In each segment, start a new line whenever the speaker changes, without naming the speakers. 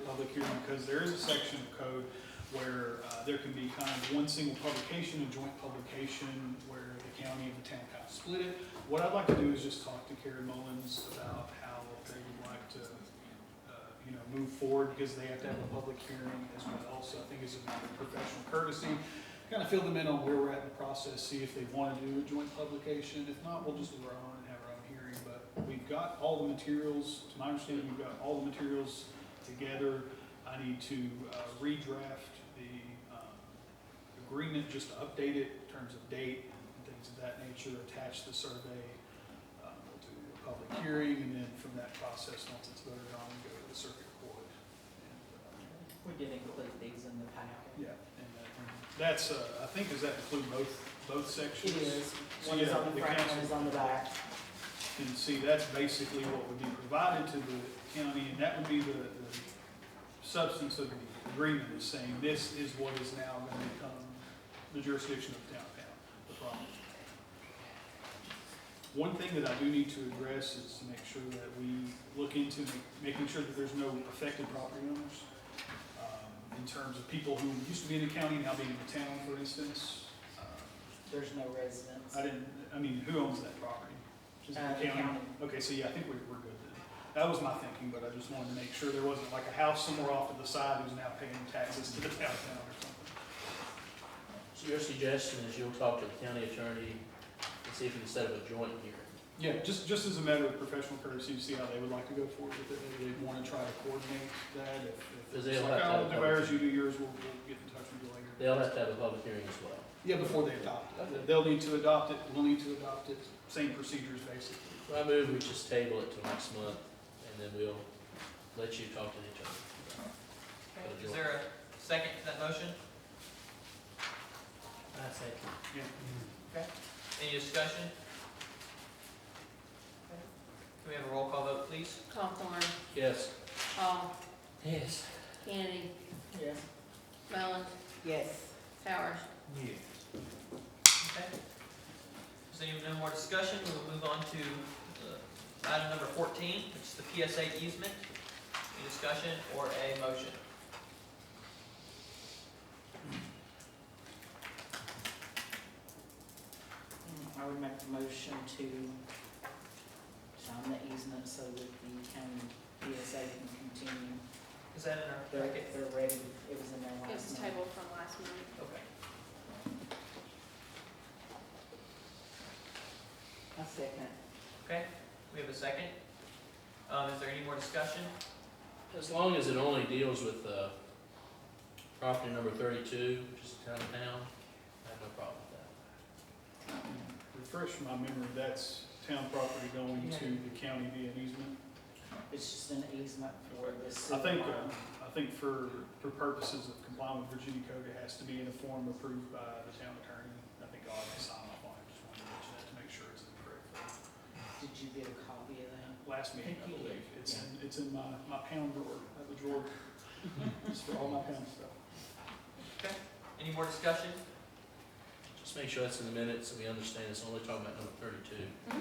public hearing because there is a section of code where uh, there can be kind of one single publication, a joint publication, where the county and the town kind of split it. What I'd like to do is just talk to Karen Mullins about how they would like to, uh, you know, move forward because they have to have a public hearing as well. So I think it's a matter of professional courtesy. Kind of fill them in on where we're at in the process, see if they want to do a joint publication. If not, we'll just do our own and have our own hearing. But we've got all the materials, to my understanding, we've got all the materials together. I need to uh, redraft the um, agreement, just to update it in terms of date and things of that nature, attach the survey. um, We'll do a public hearing, and then from that process, once it's voted on, we go to the circuit court. And,
We did include these in the packet.
uh, Yeah, and that- that's, uh, I think, does that include both, both sections?
It is,
So,
one is
yeah,
on
the
the front, one
council-
is on the back.
And see, that's basically what would be provided to the county, and that would be the, the substance of the agreement is saying this is what is now going to become the jurisdiction of downtown, the problem. One thing that I do need to address is to make sure that we look into ma- making sure that there's no affected property owners. um, In terms of people who used to be in the county now being in the town, for instance. Uh,
There's no residents.
I didn't, I mean, who owns that property? Uh, Is it
Uh, the county.
Okay, so yeah, I think we, we're good then. That was my thinking, but I just wanted to make sure there wasn't like a house somewhere off to the side who's now paying taxes to the town now or something.
So your suggestion is you'll talk to the county attorney and see if you can set up a joint hearing?
Yeah, just, just as a matter of professional courtesy, to see how they would like to go forward with it, maybe they want to try to coordinate that, if, if it's
Does they'll
like,
have to
oh,
have a
do ours, you do yours, we'll, we'll get in touch with you later.
They'll have to have a public hearing as well.
Yeah, before they adopt it, they'll need to adopt it, we'll need to adopt it, same procedures basically.
So I move we just table it till next month, and then we'll let you talk to the attorney.
Is there a second to that motion?
I second.
Yeah.
Any discussion? Can we have a roll call vote, please?
Hawthorne,
Yes.
Hall,
Yes.
Kennedy,
Yes.
Mullins,
Yes.
Powers.
Yes.
Okay. If there's any- no more discussion, we will move on to uh, item number 14, which is the PSA easement. Any discussion or a motion?
Mm, I would make the motion to sign the easement so that the county PSA can continue.
Is that in our
They're,
bracket?
they're ready, it was in their
It was
last month.
tabled from last month.
Okay.
A second.
Okay, we have a second. Um, Is there any more discussion?
As long as it only deals with, uh, property number thirty-two, which is town of town, I have no problem with that.
Refresh my memory, that's town property going to the county via an easement?
It's just an easement for this.
I think, um, I think for, for purposes of complying with Virginia code, it has to be in a form approved by the town attorney. I think I'll have to sign off on it, just wanted to mention that to make sure it's in the correct form.
Did you get a copy of that?
Last meeting, I believe, it's in, it's in my, my pound drawer, I have a drawer, it's for all my pound stuff.
Any more discussion?
Just make sure that's in the minutes, and we understand it's only talking about number thirty-two.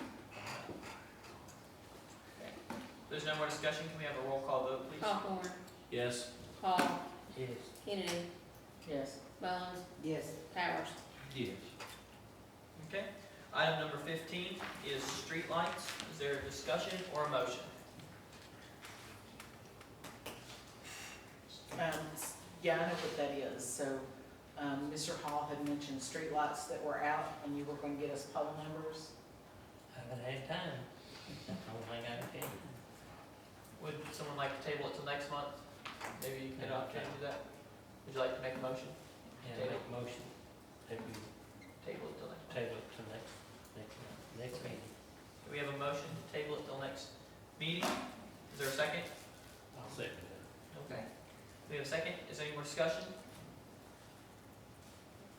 If there's no more discussion, can we have a roll call vote, please?
Hawthorne,
Yes.
Hall,
Yes.
Kennedy,
Yes.
Mullins,
Yes.
Powers.
Yes.
Okay, item number fifteen is streetlights. Is there a discussion or a motion?
Um, s- yeah, I know what that is, so, um, Mr. Hall had mentioned streetlights that were out, and you were gonna get us poll numbers.
Haven't had time. I don't think I can.
Would someone like to table it till next month? Maybe you can get an opportunity to do that? Would you like to make a motion?
Yeah, make a motion that we
Table it till next month.
table it to next, next, month, next meeting.
Do we have a motion to table it till next meeting? Is there a second?
I'll second
Okay. We have a second. Is there any more discussion?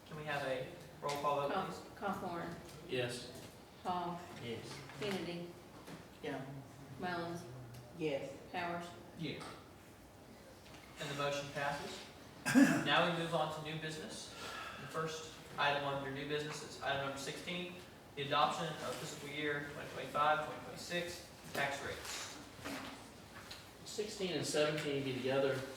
Can we have a roll call vote,
Haw-
please?
Hawthorne,
Yes.
Hall,
Yes.
Kennedy,
Yeah.
Mullins,
Yes.
Powers.
Yeah. And the motion passes. Now we move on to new business. The first item under new business is item number sixteen, the adoption of fiscal year 2025-2026 tax rates.
Sixteen and seventeen be together.